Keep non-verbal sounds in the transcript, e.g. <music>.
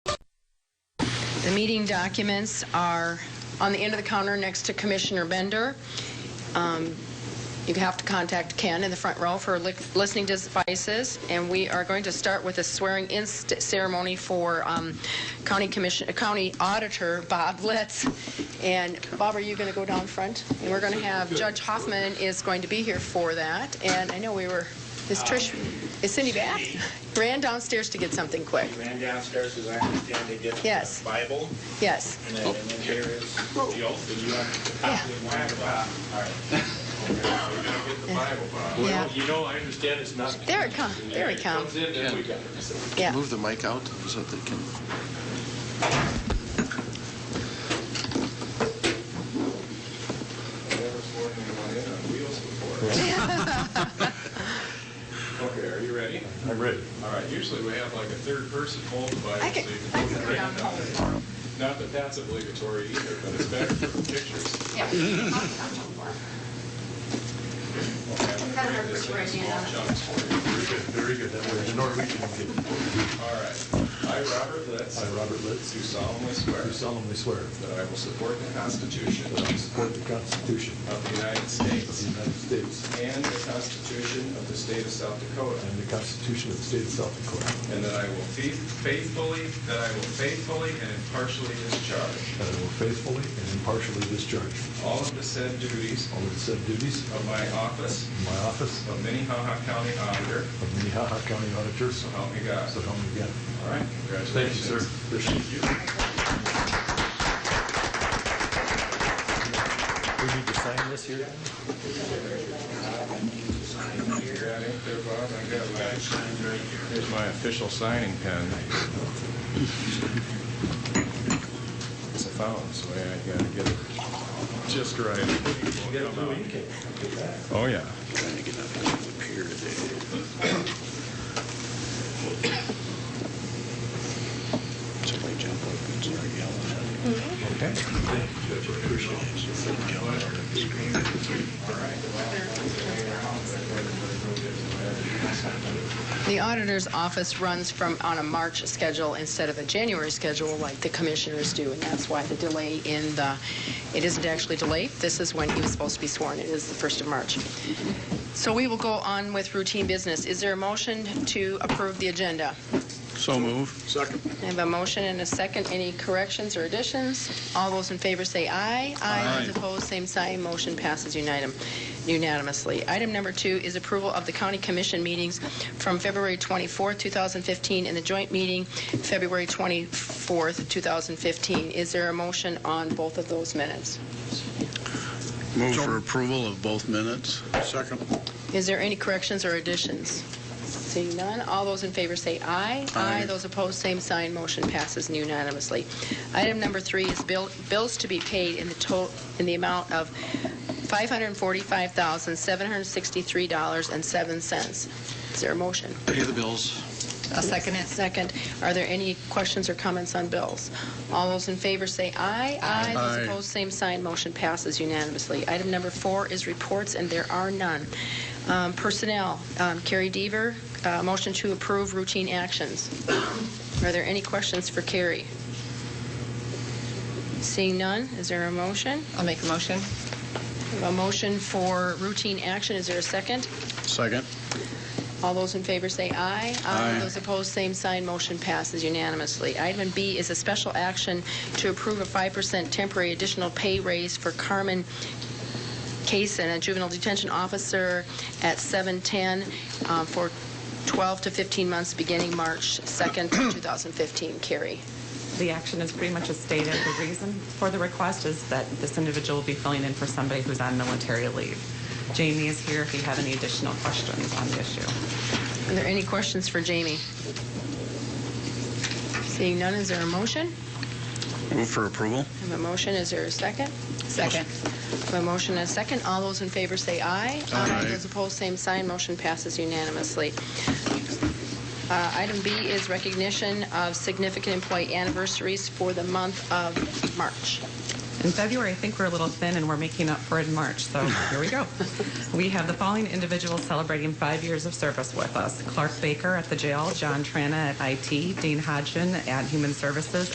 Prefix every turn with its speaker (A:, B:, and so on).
A: The meeting documents are on the end of the counter next to Commissioner Bender. Um, You have to contact Ken in the front row for li- listening devices, and we are going to start with a swearing-in st- ceremony for um, County Commission, uh, County Auditor Bob Litz. And Bob, are you going to go down front? And we're going to have, Judge Hoffman is going to be here for that, and I know we were, is Trish, is Cindy back? Ran downstairs to get something quick.
B: Ran downstairs, as I understand, to get
A: Yes.
B: the Bible,
A: Yes.
B: and
C: Oh.
B: then, and then here is the oath, and you have to
A: Yeah.
B: copy one of the-
C: <laughs>
B: All right.
D: We're gonna get the Bible, Bob.
A: Yeah.
B: You know, I understand it's not.
A: There it comes. There it comes.
B: Comes in, then we got it. So-
A: Yeah.
E: Move the mic out so that they can.
D: I've never sworn anyone in on wheels before. Okay, are you ready?
C: I'm ready.
D: All right, usually we have like a third person hold the Bible.
A: I could,
D: so you
A: I
D: can
A: could
D: put
A: go
D: your
A: down
D: hand up.
A: home.
D: Not that that's obligatory either, but it's better for pictures.
F: Yeah.
D: Okay, I'm gonna
F: Better
D: break this
F: for
D: into small
F: pictures, yeah.
D: chunks for you.
C: Very good, very good. That way, the Norwegian can
D: All right. I, Robert
C: get.
D: Litz,
C: I, Robert
D: do
C: Litz,
D: solemnly swear
C: do solemnly swear
D: that I will support the Constitution
C: that I will support the Constitution
D: of the United
C: of
D: States
C: the United States
D: and the Constitution of the State of South Dakota,
C: and the Constitution of the State of South Dakota,
D: And that I will fe- faithfully, that I will faithfully and impartially discharge
C: that I will faithfully and impartially discharge
D: all of the said duties
C: all of the said duties
D: of my office
C: in my office
D: of Minnehaha County Auditor,
C: of Minnehaha County Auditor, so
D: so help me God.
C: help me God.
D: All right, congratulations.
C: Appreciate you. We need to sign this here?
D: You got ink there, Bob? I got mine. Here's my official signing pen. It's a fountain, so I gotta get it just right. Oh, yeah.
C: Okay.
A: The auditor's office runs from, on a March schedule instead of a January schedule like the commissioners do, and that's why the delay in the, it isn't actually delayed. This is when he was supposed to be sworn. It is the 1st of March. So we will go on with routine business. Is there a motion to approve the agenda?
E: So move.
A: I have a motion and a second. Any corrections or additions? All those in favor say aye. Aye. Those opposed, same sign. Motion passes unitem- unanimously. Item number two is approval of the county commission meetings from February 24th, 2015, and the joint meeting February 24th, 2015. Is there a motion on both of those minutes?
E: Move for approval of both minutes.
A: Is there any corrections or additions? Seeing none, all those in favor say aye.
E: Aye.
A: Those opposed, same sign, motion passes unanimously. Item number three is bill- bills to be paid in the total, in the amount of $545,763.07. Is there a motion?
E: Pay the bills.
A: A second. Second. Are there any questions or comments on bills? All those in favor say aye. Aye.
E: Aye.
A: Those opposed, same sign. Motion passes unanimously. Item number four is reports, and there are none. Um, Personnel, um, Carrie Deaver, uh, motion to approve routine actions. Are there any questions for Carrie? Seeing none, is there a motion?
F: I'll make a motion.
A: A motion for routine action, is there a second?
E: Second.
A: All those in favor say aye.
E: Aye.
A: Those opposed, same sign. Motion passes unanimously. Item B is a special action to approve a 5% temporary additional pay raise for Carmen Kaysen, a juvenile detention officer at 710 uh, for 12 to 15 months beginning March 2nd, 2015. Carrie.
G: The action is pretty much as stated. The reason for the request is that this individual will be filling in for somebody who's on military leave. Jamie is here if you have any additional questions on the issue.
A: Are there any questions for Jamie? Seeing none, is there a motion?
E: Move for approval.
A: I have a motion. Is there a second?
F: Second.
A: A motion and a second. All those in favor say aye.
E: Aye.
A: Those opposed, same sign. Motion passes unanimously. Uh, Item B is recognition of significant employee anniversaries for the month of March.
G: In February, I think we're a little thin and we're making up for it in March, so here we go. We have the following individuals celebrating five years of service with us. Clark Baker at the jail, John Trana at IT, Dean Hodgson at Human Services,